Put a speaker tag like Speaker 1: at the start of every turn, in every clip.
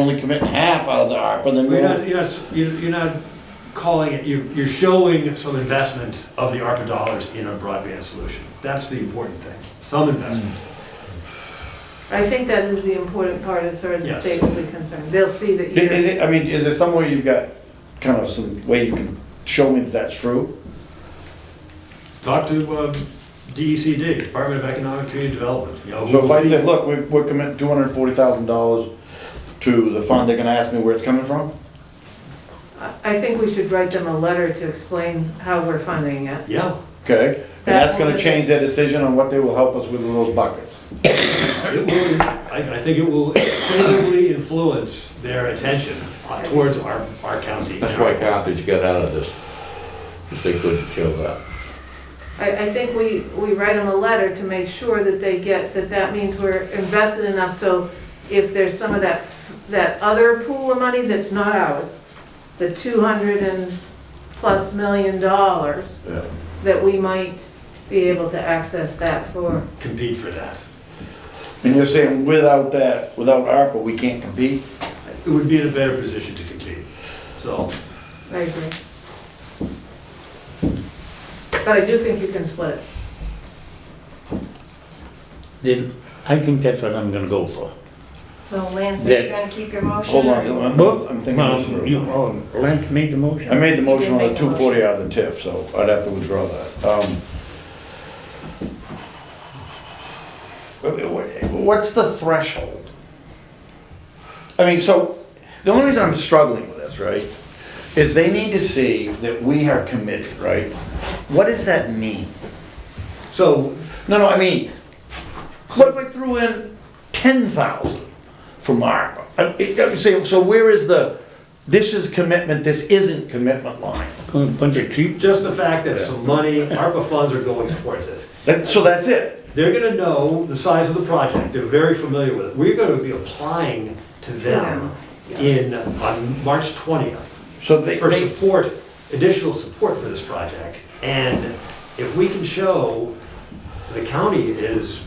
Speaker 1: only committing half out of the ARPA, then
Speaker 2: You're not,
Speaker 1: we'll,
Speaker 2: you're not, you're you're not calling it, you're, you're showing some investment of the ARPA dollars in a broadband solution. That's the important thing, some investment.
Speaker 1: Mm.
Speaker 3: I think that is the important part as far as the
Speaker 2: Yes.
Speaker 3: state will be concerned. They'll see that
Speaker 1: is
Speaker 3: you're,
Speaker 1: it, I mean, is there some way you've got, kind of some way you can show me that that's true?
Speaker 2: Talk to um, DECD, Department of Economic Community Development, you know.
Speaker 1: So if I
Speaker 2: who-
Speaker 1: say, look, we- we're committing two hundred and forty thousand dollars to the fund, they're gonna ask me where it's coming from?
Speaker 3: I I think we should write them a letter to explain how we're funding it.
Speaker 2: Yeah,
Speaker 1: Okay, and
Speaker 3: That
Speaker 1: that's gonna
Speaker 3: will-
Speaker 1: change their decision on what they will help us with in those buckets.
Speaker 2: it will, I, I think it will favorably influence their attention towards our, our county.
Speaker 4: That's why Carthage got out of this, if they couldn't show that.
Speaker 3: I, I think we, we write them a letter to make sure that they get, that that means we're invested enough, so if there's some of that, that other pool of money that's not ours, the two hundred and plus million dollars,
Speaker 1: Yeah.
Speaker 3: that we might be able to access that for.
Speaker 2: Compete for that.
Speaker 1: And you're saying without that, without ARPA, we can't compete?
Speaker 2: It would be in a better position to compete, so.
Speaker 3: I agree. But I do think you can split it.
Speaker 5: Then I think that's what I'm gonna go for.
Speaker 6: So Lance, are you
Speaker 5: That-
Speaker 6: gonna keep your motion?
Speaker 1: Hold
Speaker 6: or you-
Speaker 1: on, I'm, I'm thinking
Speaker 5: Well,
Speaker 1: this
Speaker 5: you,
Speaker 1: through.
Speaker 5: oh, Lance made the motion.
Speaker 1: I made the motion on
Speaker 6: You
Speaker 1: the
Speaker 6: did make the
Speaker 1: two forty out of the TIF, so I'd have to withdraw that. Um, wha- wha- What's the threshold? I mean, so, the only reason I'm struggling with this, right, is they need to see that we are committed, right? What does that mean?
Speaker 2: So,
Speaker 1: No, no, I mean, what if I threw in ten thousand from ARPA? I- I- I'm saying, so where is the, this is commitment, this isn't commitment line?
Speaker 5: A Bunch of cheap,
Speaker 2: just the fact that some money, ARPA funds are going towards it.
Speaker 1: That, so that's it.
Speaker 2: They're gonna know the size of the project, they're very familiar with it. We're gonna be applying to them in, uh, on March twentieth
Speaker 1: So they,
Speaker 2: for
Speaker 1: they,
Speaker 2: support, additional support for this project. And if we can show the county is,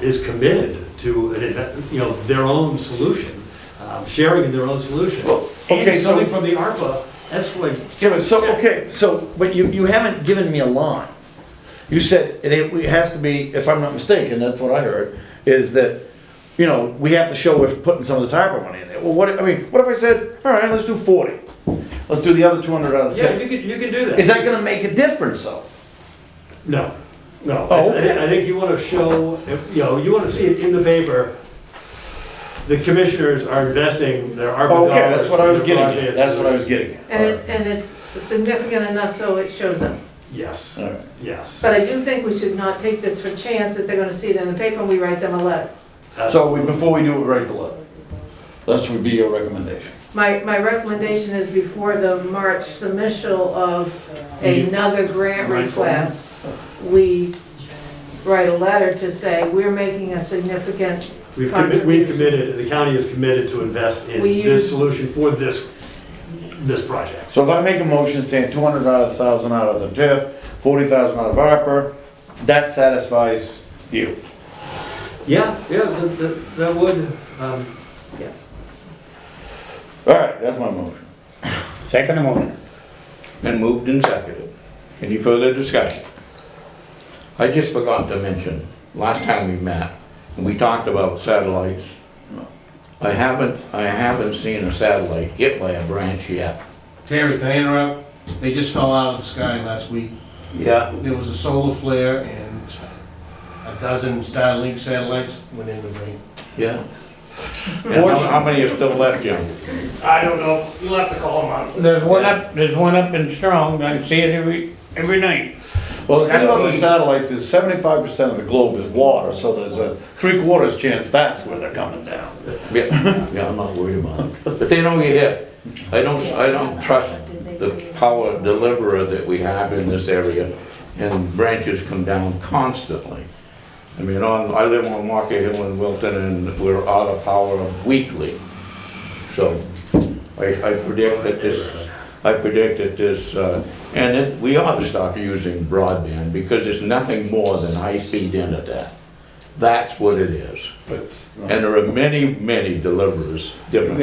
Speaker 2: is committed to, an inve- you know, their own solution, um, sharing in their own solution,
Speaker 1: Well,
Speaker 2: and
Speaker 1: okay,
Speaker 2: it's
Speaker 1: so-
Speaker 2: coming from the ARPA, that's like,
Speaker 1: yeah, but so, okay, so, but you, you haven't given me a line. You said it, it has to be, if I'm not mistaken, that's what I heard, is that, you know, we have to show we're putting some of this ARPA money in there. Well, what, if- I mean, what if I said, all right, let's do forty? Let's do the other two hundred out of the
Speaker 2: yeah, you
Speaker 1: ten.
Speaker 2: can, you can do that.
Speaker 1: Is that gonna make a difference though?
Speaker 2: No, no.
Speaker 1: Oh,
Speaker 2: I- I thi- I think you want to show, you know, you want to see it in the paper, the commissioners are investing their ARPA dollars.
Speaker 1: Oh, Okay, that's what I was
Speaker 2: in their
Speaker 1: getting at,
Speaker 2: projects.
Speaker 1: that's what I was getting at.
Speaker 3: And it, and it's significant enough so it shows up.
Speaker 2: Yes,
Speaker 1: All right.
Speaker 2: yes.
Speaker 3: But I do think we should not take this for chance that they're gonna see it in the paper and we write them a letter.
Speaker 1: So we, before we do it, write the letter. That would be your recommendation.
Speaker 3: My, my recommendation is before the March submission of another grant request, we write a letter to say, we're making a significant,
Speaker 2: We've committed, we've committed, the county is committed to invest in
Speaker 3: We
Speaker 2: this
Speaker 3: use-
Speaker 2: solution for this, this project.
Speaker 1: So if I make a motion saying two hundred out of thousand out of the TIF, forty thousand out of ARPA, that satisfies you.
Speaker 2: Yeah, yeah, that- that, that would, um,
Speaker 1: All right, that's my motion.
Speaker 5: second motion.
Speaker 4: And moved and seconded. Any further discussion? I just forgot to mention, last time we met, we talked about satellites. I haven't, I haven't seen a satellite hit by a branch yet.
Speaker 7: Terry, can I interrupt? They just fell out of the sky last week.
Speaker 4: Yeah.
Speaker 7: There was a solar flare and a dozen Starlink satellites went in the ring.
Speaker 4: Yeah. And how- how many are still left, Jim?
Speaker 7: I don't know. You'll have to call them out.
Speaker 5: There's one up, there's one up in Strong, I see it every, every night.
Speaker 1: Well, the thing about the satellites is seventy-five percent of the globe is water, so there's a three quarters chance that's where they're coming down.
Speaker 4: Yeah, yeah, I'm not worried about it. But they don't get hit. I don't, I don't trust the power deliverer that we have in this area, and branches come down constantly. I mean, on, I live on Walker Hill in Wilton, and we're out of power weekly. So I, I predict that this, I predict that this, uh, and it, we ought to stop using broadband, because it's nothing more than high-speed internet. That's what it is.
Speaker 1: But
Speaker 4: And there are many, many deliverers, different